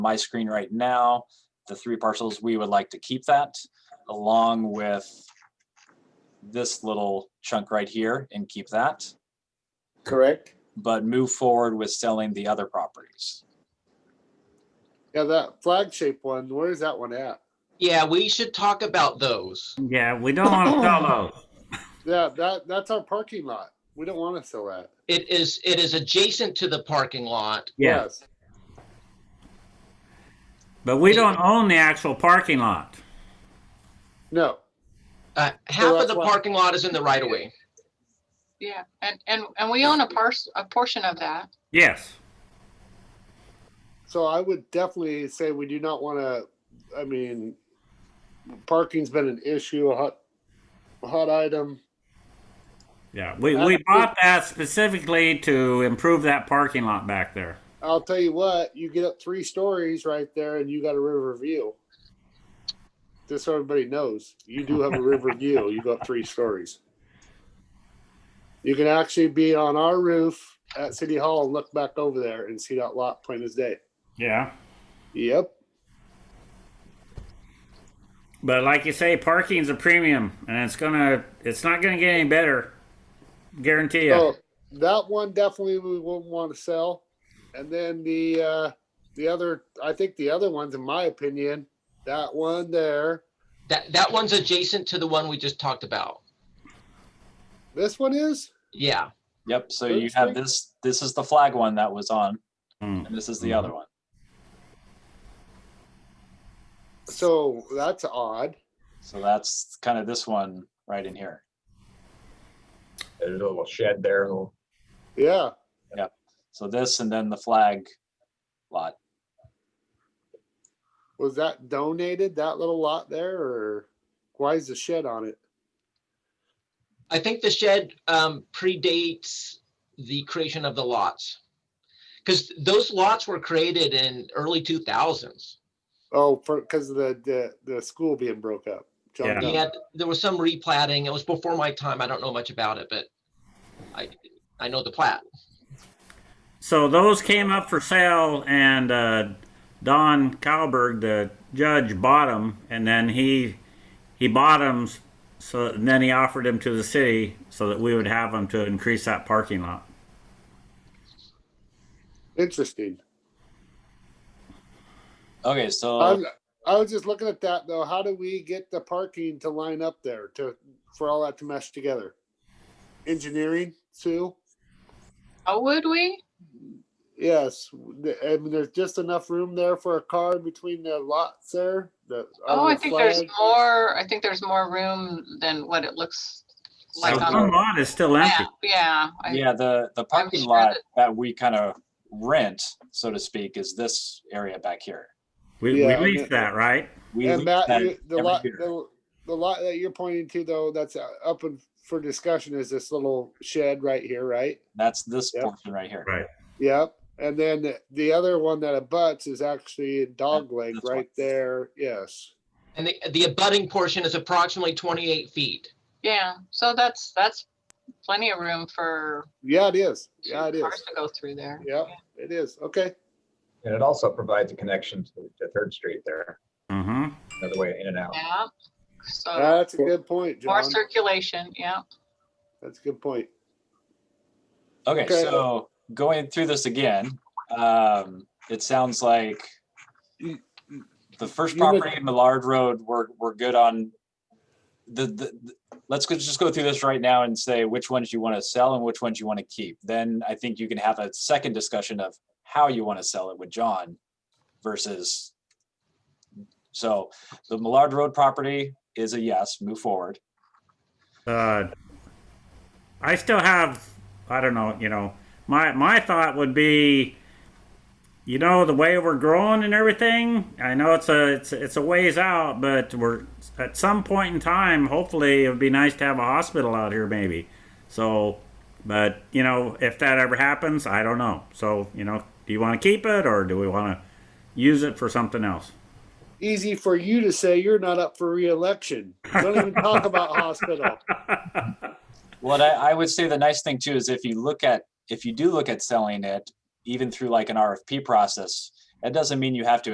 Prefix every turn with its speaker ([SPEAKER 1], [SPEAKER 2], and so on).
[SPEAKER 1] my screen right now, the three parcels, we would like to keep that along with this little chunk right here and keep that,
[SPEAKER 2] correct?
[SPEAKER 1] but move forward with selling the other properties.
[SPEAKER 2] Yeah, that flag shaped one, where is that one at?
[SPEAKER 3] Yeah, we should talk about those.
[SPEAKER 4] Yeah, we don't want to sell those.
[SPEAKER 2] Yeah, that, that's our parking lot. We don't want to sell that.
[SPEAKER 3] It is, it is adjacent to the parking lot.
[SPEAKER 4] Yeah, but we don't own the actual parking lot.
[SPEAKER 2] No,
[SPEAKER 3] Uh,
[SPEAKER 2] So
[SPEAKER 3] half of
[SPEAKER 2] that's
[SPEAKER 3] the
[SPEAKER 2] why-
[SPEAKER 3] parking lot is in the right of way.
[SPEAKER 5] Yeah, and, and, and we own a parcel, a portion of that.
[SPEAKER 4] Yes.
[SPEAKER 2] so I would definitely say we do not want to, I mean, parking's been an issue, a hot, a hot item.
[SPEAKER 4] Yeah, we, we bought that specifically to improve that parking lot back there.
[SPEAKER 2] I'll tell you what, you get up three stories right there and you got a river view. Just so everybody knows, you do have a river view. You go up three stories. You can actually be on our roof at City Hall and look back over there and see that lot plain as day.
[SPEAKER 4] Yeah.
[SPEAKER 2] Yep.
[SPEAKER 4] But like you say, parking's a premium and it's gonna, it's not gonna get any better. Guarantee you.
[SPEAKER 2] So that one definitely we wouldn't want to sell. And then the uh the other I think the other ones in my opinion, that one there,
[SPEAKER 3] That, that one's adjacent to the one we just talked about.
[SPEAKER 2] this one is
[SPEAKER 3] Yeah,
[SPEAKER 1] Yep, so you have this, this is the flag one that was on,
[SPEAKER 4] Mm.
[SPEAKER 1] and this is the other one.
[SPEAKER 2] so that's odd.
[SPEAKER 1] So that's kind of this one right in here.
[SPEAKER 6] There's a little shed there, a little
[SPEAKER 2] Yeah.
[SPEAKER 1] So this and then the flag lot.
[SPEAKER 2] Was that donated, that little lot there, or why is the shed on it?
[SPEAKER 3] I think the shed um, predates the creation of the lots. Because those lots were created in early 2000s.
[SPEAKER 2] Oh, for, because of the, the, the school being broke up. John
[SPEAKER 4] Yeah.
[SPEAKER 2] Doe.
[SPEAKER 3] Yeah, there was some replatting. It was before my time. I don't know much about it, but I, I know the plat.
[SPEAKER 4] So those came up for sale, and uh, Don Kalberg, the judge, bought them, and then he he bought them. So and then he offered them to the city so that we would have them to increase that parking lot.
[SPEAKER 2] Interesting.
[SPEAKER 1] Okay, so
[SPEAKER 5] Uh, Oh,
[SPEAKER 2] I'm, I was just looking at that though. How do we get the parking to line up there to, for all that to mesh together? Engineering, Sue?
[SPEAKER 5] Oh, would we?
[SPEAKER 2] Yes, the- I mean, there's just enough room there for a car between the lots there. the-
[SPEAKER 5] Oh,
[SPEAKER 2] under
[SPEAKER 5] I
[SPEAKER 2] the
[SPEAKER 5] think there's
[SPEAKER 2] flag.
[SPEAKER 5] more, I think there's more room than what it looks
[SPEAKER 4] So
[SPEAKER 5] like on
[SPEAKER 4] one
[SPEAKER 5] the
[SPEAKER 4] lot is still empty.
[SPEAKER 5] map. Yeah, I-
[SPEAKER 1] yeah, the, the parking
[SPEAKER 5] sure
[SPEAKER 1] lot
[SPEAKER 5] that-
[SPEAKER 1] that we kind of rent, so to speak, is this area back here.
[SPEAKER 4] We,
[SPEAKER 2] Yeah,
[SPEAKER 4] we leased
[SPEAKER 2] yeah.
[SPEAKER 4] that, right?
[SPEAKER 1] We
[SPEAKER 2] And
[SPEAKER 1] lease
[SPEAKER 2] Matt,
[SPEAKER 1] that
[SPEAKER 2] you- the
[SPEAKER 1] every
[SPEAKER 2] lot,
[SPEAKER 1] year.
[SPEAKER 2] the, the lot that you're pointing to though, that's uh, up and for discussion is this little shed right here, right?
[SPEAKER 1] That's this
[SPEAKER 2] Yep.
[SPEAKER 1] portion right here.
[SPEAKER 4] Right.
[SPEAKER 2] Yep. And then the- the other one that abuts is actually in Dog Lake
[SPEAKER 1] that's
[SPEAKER 2] right there. Yes.
[SPEAKER 3] And the, the abutting portion is approximately 28 feet.
[SPEAKER 5] yeah, so that's, that's plenty of room for
[SPEAKER 2] Yeah, it is.
[SPEAKER 5] two
[SPEAKER 2] Yeah, it is.
[SPEAKER 5] cars to go through there.
[SPEAKER 2] Yep, it is. Okay.
[SPEAKER 6] and it also provides a connection to, to Third Street there,
[SPEAKER 4] hmm
[SPEAKER 6] another way in and out.
[SPEAKER 5] Yeah, so
[SPEAKER 2] That's a good point,
[SPEAKER 5] more
[SPEAKER 2] John.
[SPEAKER 5] circulation, yeah.
[SPEAKER 2] That's a good point.
[SPEAKER 1] Okay,
[SPEAKER 2] Okay.
[SPEAKER 1] so going through this again, um, it sounds like
[SPEAKER 2] You-
[SPEAKER 1] the first
[SPEAKER 2] you would-
[SPEAKER 1] property, Millard Road, we're, we're good on the, the, the- let's go- just go through this right now and say which ones you want to sell and which ones you want to keep. Then I think you can have a second discussion of how you want to sell it with John versus. So the Millard Road property is a yes, move forward.
[SPEAKER 4] uh, I still have, I don't know, you know, my my thought would be, you know, the way we're growing and everything. I know it's a it's it's a ways out, but we're at some point in time. Hopefully, it would be nice to have a hospital out here, maybe. So, but you know, if that ever happens, I don't know. So, you know, do you want to keep it or do we want to use it for something else?
[SPEAKER 2] Easy for you to say you're not up for reelection. Don't even talk about hospital.
[SPEAKER 1] Well, I, I would say the nice thing too is if you look at, if you do look at selling it, even through like an RFP process, that doesn't mean you have to